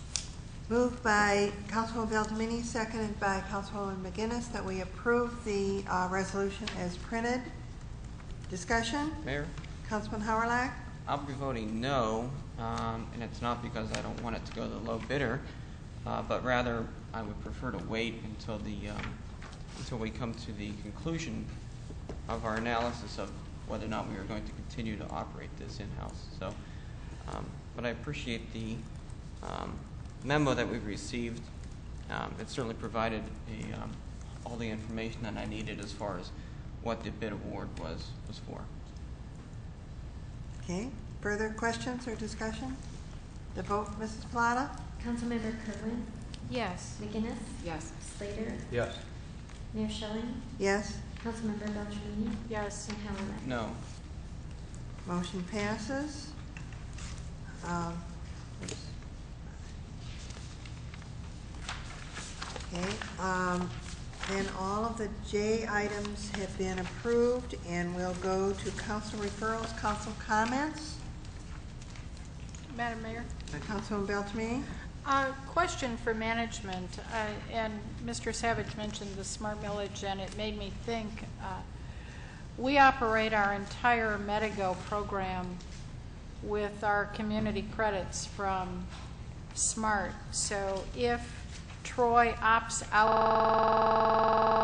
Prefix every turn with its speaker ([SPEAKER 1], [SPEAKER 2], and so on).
[SPEAKER 1] Moved by Councilwoman Beltramini, seconded by Councilwoman McGinnis, that we approve the uh, resolution as printed. Discussion?
[SPEAKER 2] Mayor,
[SPEAKER 1] Councilman Howerlag?
[SPEAKER 2] I'll be voting no, um, and it's not because I don't want it to go to the low bidder, uh, but rather I would prefer to wait until the, um, until we come to the conclusion of our analysis of whether or not we are going to continue to operate this in-house. So, um, but I appreciate the um, memo that we've received. Um, It certainly provided the, um, all the information that I needed as far as what the bid award was, was for.
[SPEAKER 1] Okay, further questions or discussion? The vote, Mrs. Plata?
[SPEAKER 3] Councilmember Kerwin,
[SPEAKER 4] Yes.
[SPEAKER 3] McGinnis,
[SPEAKER 4] Yes.
[SPEAKER 3] Slater,
[SPEAKER 5] Yes.
[SPEAKER 3] Mayor Schilling,
[SPEAKER 1] Yes,
[SPEAKER 3] Councilmember Beltramini,
[SPEAKER 4] Yes.
[SPEAKER 3] and Howerlag.
[SPEAKER 2] No.
[SPEAKER 1] motion passes. Um, oops. Okay, um, then all of the J items have been approved, and we'll go to council referrals, council comments.
[SPEAKER 4] Madam Mayor?
[SPEAKER 1] Councilman Beltrame?
[SPEAKER 4] Uh, Question for management, uh, and Mr. Savage mentioned the smart millage, and it made me think, uh, we operate our entire Medigo program with our community credits from SMART. So if Troy opts out